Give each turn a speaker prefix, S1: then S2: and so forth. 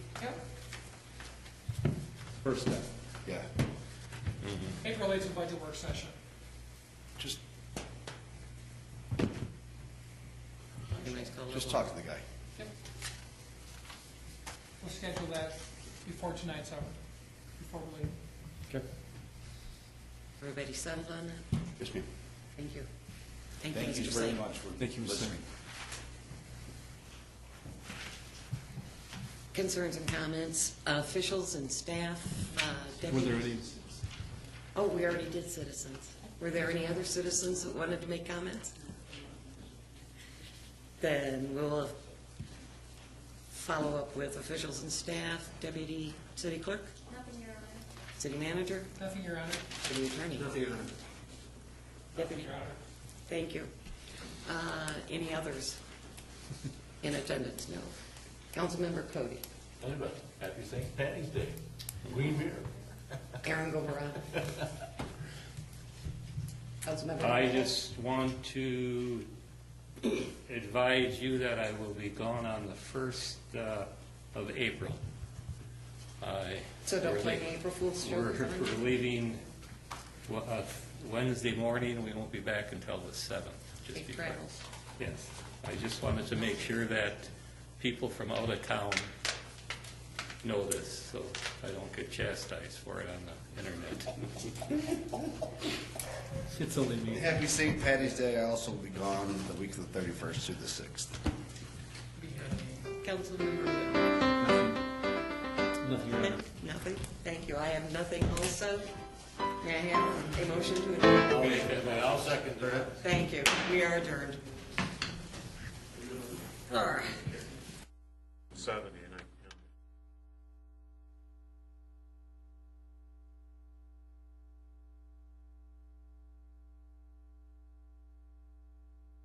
S1: Yep,
S2: First step.
S3: Yeah,
S1: April eighth is budget work session.
S3: just,
S4: Everybody's got a
S3: just
S4: little-
S3: talk to the guy.
S1: Yep. We'll schedule that before tonight's over, before we leave.
S2: Okay.
S4: Everybody settled on that?
S3: Yes, ma'am.
S4: Thank you. Thank you,
S3: Thank you
S4: Mr.
S3: very
S4: Slade.
S3: much for
S2: Thank you, Mr. Singh.
S3: listening.
S4: Concerns and comments, uh, officials and staff, uh,
S2: Were there
S4: deputies?
S2: any,
S4: Oh, we already did citizens. Were there any other citizens that wanted to make comments? Then we'll follow up with officials and staff, deputy city clerk,
S5: Nothing, Your Honor.
S4: city manager,
S1: Nothing, Your Honor?
S4: city attorney. Deputy.
S1: Your Honor.
S4: Thank you. Uh, Any others in attendance? No. Councilmember Cody,
S6: Anyway, happy St. Patty's Day. Green beer.
S4: Aaron Gombrowski. Councilmember.
S7: I just want to advise you that I will be gone on the first uh, of April. I-
S4: So don't play
S7: we're
S4: an
S7: lea-
S4: April Fool's
S7: We're
S4: joke.
S7: we're leaving we- uh, Wednesday morning, we won't be back until the 7th. just
S4: Safe
S7: because-
S4: travels.
S7: Yes, I just wanted to make sure that people from out of town know this, so I don't get chastised for it on the internet.
S2: it's only me.
S3: Happy St. Patty's Day. I also will be gone the week of the 31st through the 6th.
S4: Councilmember. Whitmer.
S2: Nothing, Your Honor.
S4: Nothing? Thank you. I have nothing also. May I have a motion to adjourn?
S6: I'll second that.
S4: Thank you. We are adjourned. All right.
S6: Seven.